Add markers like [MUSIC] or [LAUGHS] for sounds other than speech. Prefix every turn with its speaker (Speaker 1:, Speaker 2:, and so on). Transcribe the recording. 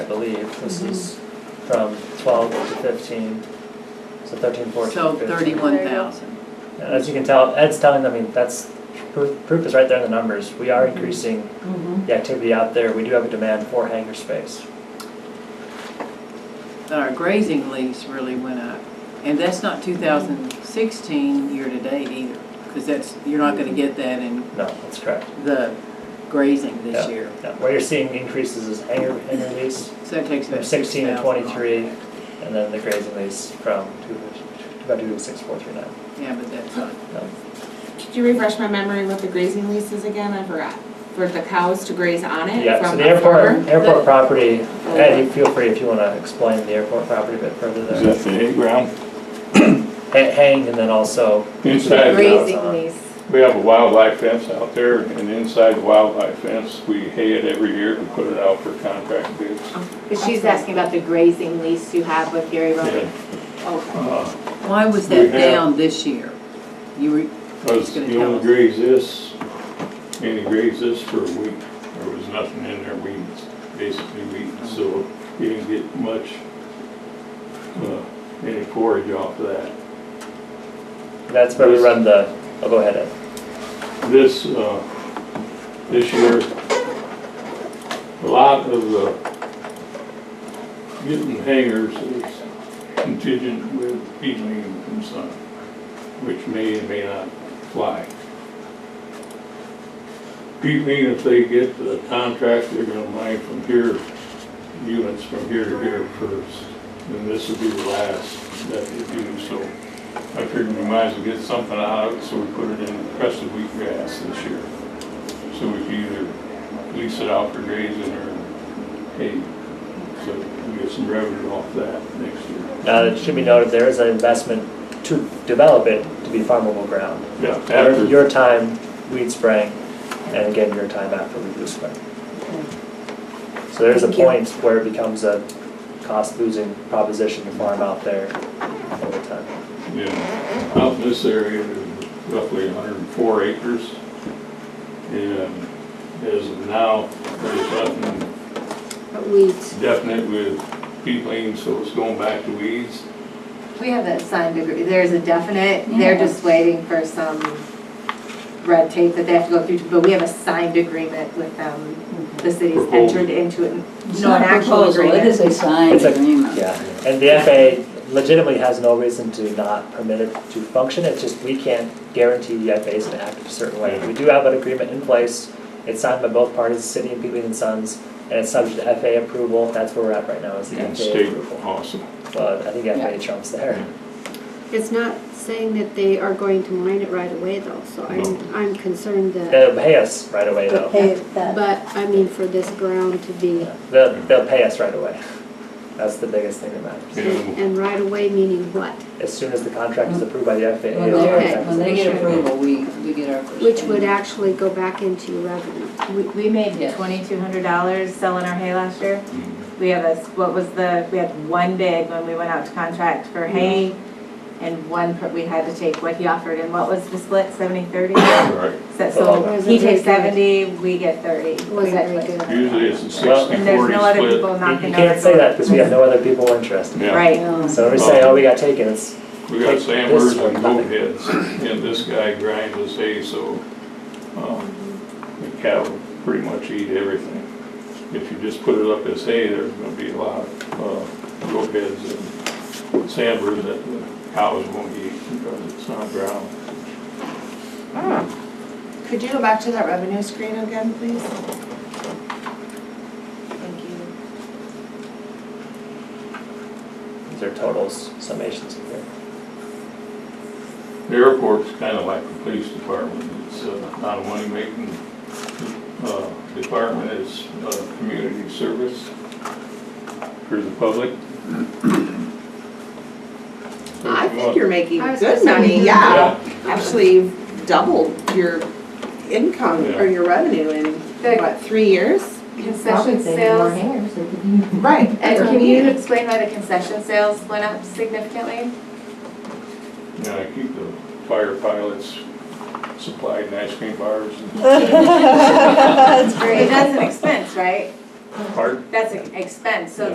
Speaker 1: believe, this is from twelve to fifteen, so thirteen, fourteen,
Speaker 2: So
Speaker 1: fifteen.
Speaker 2: thirty-one thousand.
Speaker 1: As you can tell, Ed's telling, I mean, that's, proof proof is right there in the numbers, we are increasing
Speaker 3: Mm-hmm.
Speaker 1: the activity out there, we do have a demand for hangar space.
Speaker 2: But our grazing lease really went up. And that's not two thousand sixteen year-to-date either, because that's, you're not gonna get that in
Speaker 1: No, that's correct.
Speaker 2: the grazing this year.
Speaker 1: Yeah, Where you're seeing increases is hangar, hangar lease
Speaker 2: So that takes
Speaker 1: from
Speaker 2: about
Speaker 1: sixteen to
Speaker 2: 6,000 off.
Speaker 1: twenty-three, and then the grazing lease from two, about two to six, four, three, nine.
Speaker 2: Yeah, but that's not,
Speaker 1: No.
Speaker 4: Could you refresh my memory with the grazing leases again? I forgot. For the cows to graze on it
Speaker 1: Yeah, so
Speaker 4: from
Speaker 1: the
Speaker 4: the farmer?
Speaker 1: airport, airport
Speaker 2: The-
Speaker 1: property, Ed, you feel free if you wanna explain the airport property a bit further
Speaker 5: Is
Speaker 1: there.
Speaker 5: that the hay ground?
Speaker 1: Ha- Hang, and then also,
Speaker 5: Inside, the-
Speaker 1: uh,
Speaker 6: Grazing lease.
Speaker 5: we have a wildlife fence out there, and inside the wildlife fence, we hay it every year and put it out for contract bids.
Speaker 6: Because she's asking about the grazing lease you have with Gary Roden. Okay.
Speaker 5: Uh,
Speaker 2: why was
Speaker 5: We
Speaker 2: that
Speaker 5: have-
Speaker 2: down this year? You were,
Speaker 5: Cause
Speaker 2: gonna
Speaker 5: you
Speaker 2: tell
Speaker 5: only
Speaker 2: us.
Speaker 5: graze this, you only graze this for a week. There was nothing in there, we basically weeded, so you didn't get much, uh, any forage off of that.
Speaker 1: that's where we run the, oh, go ahead, Ed.
Speaker 5: this, uh, this year, a lot of the getting hangers is contingent with peeling and sun, which may and may not fly. Peeling, if they get the contract, they're gonna mine from here, units from here to here first, and this would be the last that they do, so. I figured we might as well get something out of it, so we put it in crested wheatgrass this year. So we can either lease it out for grazing or hay. So we get some revenue off that next year.
Speaker 1: Now, Uh, it should be noted, there is an investment to develop it to be farmable ground.
Speaker 5: Yeah,
Speaker 1: Your-
Speaker 5: after,
Speaker 1: Your time weed spraying, and again, your time after we do spray. So there's a
Speaker 6: Thank you.
Speaker 1: point where it becomes a cost-losing proposition to farm out there over time.
Speaker 5: yeah, out in this area, there's roughly hundred and four acres. And as of now, there's nothing
Speaker 6: But weeds.
Speaker 5: definite with peatland, so it's going back to weeds.
Speaker 6: We have that signed agree, there's a definite, they're just waiting for some red tape that they have to go through, but we have a signed agreement with them. The city's
Speaker 5: Proposal.
Speaker 6: entered into it,
Speaker 3: Mm-hmm. It's
Speaker 6: no,
Speaker 3: not
Speaker 6: an
Speaker 3: a
Speaker 6: actual
Speaker 3: proposal, it
Speaker 6: agreement.
Speaker 3: is a signed
Speaker 1: It's a-
Speaker 3: agreement.
Speaker 1: Yeah, and the FAA legitimately has no reason to not permit it to function, it's just we can't guarantee the FAA is gonna act a certain way. We do have an agreement in place, it's signed by both parties, the city and Peatland and Sons, and it's subject to FAA approval, that's where we're at right now, is the
Speaker 5: And
Speaker 1: FAA
Speaker 5: state,
Speaker 1: approval.
Speaker 5: awesome.
Speaker 1: But I think FAA trumps there.
Speaker 7: It's not saying that they are going to mine it right away though, so
Speaker 5: No.
Speaker 7: I'm, I'm concerned
Speaker 1: [LAUGHS]
Speaker 7: that,
Speaker 1: They'll pay us right away though.
Speaker 7: but I mean, for this ground to be,
Speaker 1: They'll, they'll pay us right away. [LAUGHS] That's the biggest thing that matters.
Speaker 5: Yeah.
Speaker 7: and and right away meaning what?
Speaker 1: As soon as the contract is approved by the FAA.
Speaker 3: When
Speaker 1: the
Speaker 3: they,
Speaker 1: contract is
Speaker 3: when they get
Speaker 1: issued.
Speaker 3: approval, we, we get our first.
Speaker 7: Which would
Speaker 3: payment.
Speaker 7: actually go back into revenue.
Speaker 6: We, we made
Speaker 3: Yes.
Speaker 6: twenty-two hundred dollars selling our hay last year. We have a, what was the, we had one bid when we went out to contract for hay, and one, per- we had to take what he offered, and what was the split, seventy, thirty?
Speaker 5: Right.
Speaker 6: So
Speaker 7: Wasn't
Speaker 6: he takes
Speaker 7: very good.
Speaker 6: seventy, we get thirty.
Speaker 7: Wasn't very
Speaker 6: Exactly.
Speaker 7: good.
Speaker 5: Usually it's a
Speaker 1: Well-
Speaker 5: sixty
Speaker 6: And there's
Speaker 5: forty
Speaker 6: no other
Speaker 5: split.
Speaker 6: people
Speaker 1: You
Speaker 6: knocking
Speaker 1: you
Speaker 6: on our
Speaker 1: can't say
Speaker 6: door.
Speaker 1: that because we have no other people interested.
Speaker 5: Yeah.
Speaker 6: Right.
Speaker 1: So when we say, oh, we got taken, it's
Speaker 5: We got
Speaker 1: Take
Speaker 5: sanders
Speaker 1: this or
Speaker 5: and
Speaker 1: nothing.
Speaker 5: boneheads, and this guy grinds his hay, so, um, the cattle pretty much eat everything. If you just put it up as hay, there's gonna be a lot of, uh, roadheads and sanders that the cows won't eat because it's not ground.
Speaker 8: Could you go back to that revenue screen again, please? Thank you.
Speaker 1: These are totals, summations in here.
Speaker 5: The airport's kind of like the police department, it's uh, not a money-making uh, department, it's a community service for the public.
Speaker 8: I think you're making
Speaker 6: I was
Speaker 8: good
Speaker 6: just
Speaker 8: money,
Speaker 6: thinking-
Speaker 8: yeah.
Speaker 5: Yeah,
Speaker 8: Actually, you've doubled your income or
Speaker 5: Yeah.
Speaker 8: your revenue in,
Speaker 6: The-
Speaker 8: what, three years?
Speaker 6: Concession sales,
Speaker 8: Right.
Speaker 6: and can you explain why the concession sales went up [LAUGHS] significantly?
Speaker 5: Yeah, I keep the fire pilots supplied in ice cream bars and
Speaker 6: It- That's an expense, right?
Speaker 5: Pardon?
Speaker 6: That's an expense, so